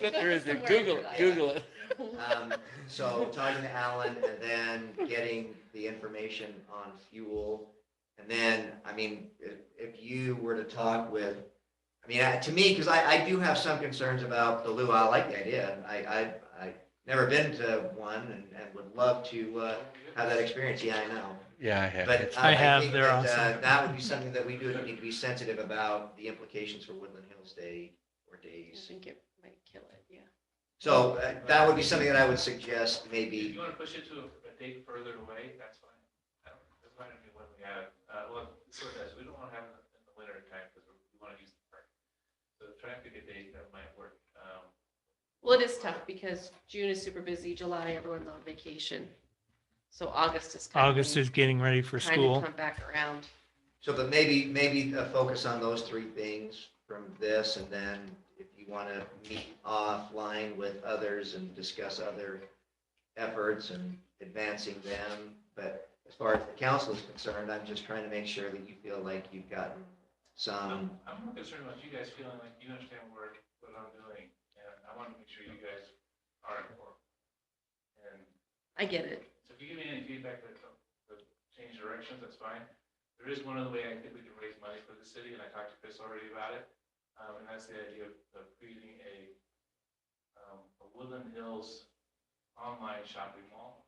There is, Somewhere Google in it, there. Google it. Um, so talking to Alan and then getting the information on fuel. And then, I mean, if, if you were to talk with, I mean, I- to me, because I, I do have some concerns about the luau, I like the idea. I, I, I never been to one and, and would love to, uh, have that experience. Yeah, I know. Yeah, I have. But It's- uh, I have, think they're that, awesome. uh, That would be something that we do need to be sensitive about the implications for Woodland Hills Day or I days. think it might kill it, yeah. So uh, that would be something that I would suggest If maybe you want to push it to a- a date further away, that's fine. I don't- That's not going to be when we have, uh, well, sort of, we don't want to have it in the winter time because we want to use the park. So try and pick a date that might work. Um, Well, it is tough because June is super busy, July, everyone's on vacation. So August is. kind of August is getting ready for trying to school. Come back around. So, but maybe, maybe a focus on those three things from this, and then if you want to meet offline with others and discuss other efforts and advancing them, but as far as the council is concerned, I'm just trying to make sure that you feel like you've gotten some, I'm, I'm more concerned about you guys feeling like you understand where, what I'm doing. And I want to make sure you guys are informed. And I get it. So if you give me any feedback that, uh, that change directions, that's fine. There is one other way I think we can raise money for the city, and I talked to Chris already about it. Um, and that's the idea of, of creating a, um, a Woodland Hills online shopping mall.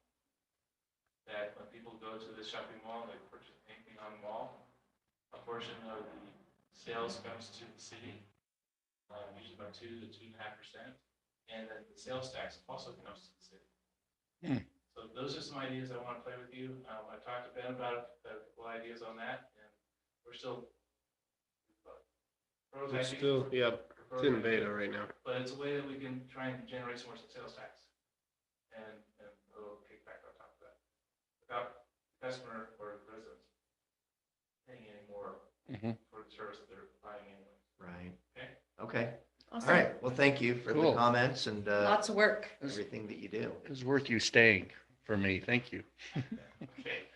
That when people go to the shopping mall, they purchase anything on the mall, a portion of the sales comes to the city. Um, usually about two to two and a half percent, and then the sales tax also comes to the city. So those are some ideas I want to play with you. Um, I talked to Ben about a couple ideas on that, and we're still. uh, We're still, yeah, it's in beta right now. But it's a way that we can try and generate some more sales tax and, and a little kickback on top of that. Without customer or residents paying any more Mhm. for the service that they're buying anyway. right? Okay. Okay, all Awesome. right, well, thank you for the Cool. comments and uh, Lots of work. everything that you do. It was worth you staying for me. Thank you. Okay.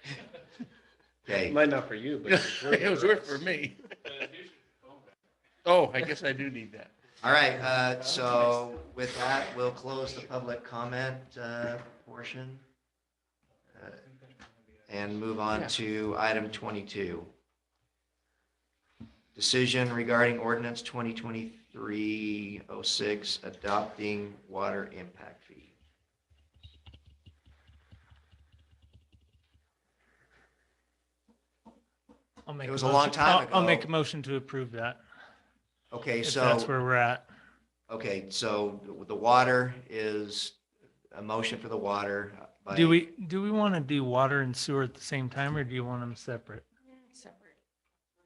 Okay, Might not for you, but. it's It was worth for us. me. Uh, here's your phone back. Oh, I guess I do need that. all right, uh, so with that, we'll close the public comment uh, portion. Uh, and move on Yeah. to item 22. Decision regarding ordinance 2023-06 adopting water impact fee. I'll make It was a a long motion- time I'll- I'll make ago. a motion to approve that, Okay, if that's so, where we're at. okay, so the water is, a motion for the water. by- Do we, do we want to do water and sewer at the same time or do you want them separate? Separate.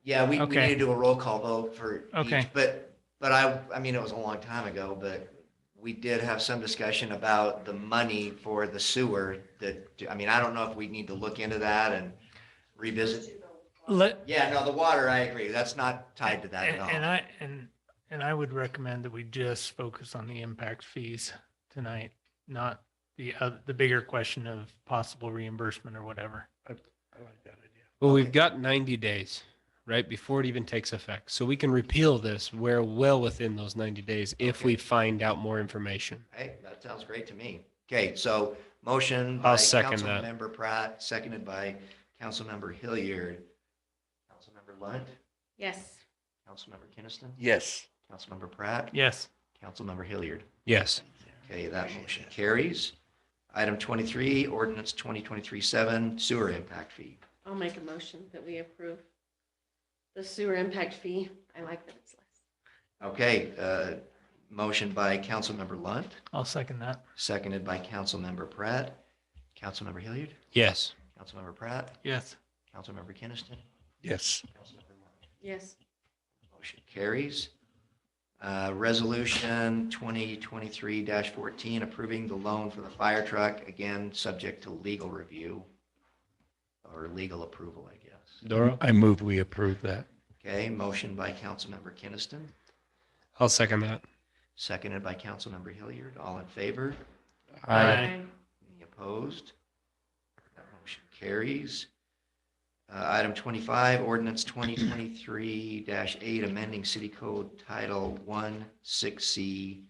Yeah, we, we Okay. need to do a roll call vote for each, Okay. but, but I, I mean, it was a long time ago, but we did have some discussion about the money for the sewer that, I mean, I don't know if we need to look into that and revisit. Let, Yeah, no, the water, I agree. That's not tied to that and and at all. I, and, and I would recommend that we just focus on the impact fees tonight, not the, oth- the bigger question of possible reimbursement or whatever. I like that idea. Well, Okay. we've got ninety days, right, before it even takes effect. So we can repeal this. We're well within those ninety days if we find out more information. Hey, that sounds great to me. Okay, so motion by I'll second that. Councilmember Pratt, seconded by Councilmember Hilliard. Councilmember Lunt, Yes. Councilmember Kinnison, Yes. Councilmember Pratt, Yes. Councilmember Hilliard. Yes. Okay, that motion carries. Item 23, ordinance 2023-7, sewer impact fee. I'll make a motion that we approve the sewer impact fee. I like that it's less. Okay, uh, motion by Councilmember Lunt, I'll second that. seconded by Councilmember Pratt. Councilmember Hilliard, Yes. Councilmember Pratt, Yes. Councilmember Kinnison, Yes. Councilmember Lunt. Yes. Motion carries. Uh, Resolution 2023-14, approving the loan for the fire truck, again, subject to legal review or legal approval, I guess. Doro? I move we approve that. Okay, motion by Councilmember Kinnison, I'll second that. Seconded by Councilmember Hilliard. All in favor? Any opposed? That motion carries. Uh, Item 25, ordinance 2023-8, amending City Code Title 1, 6C,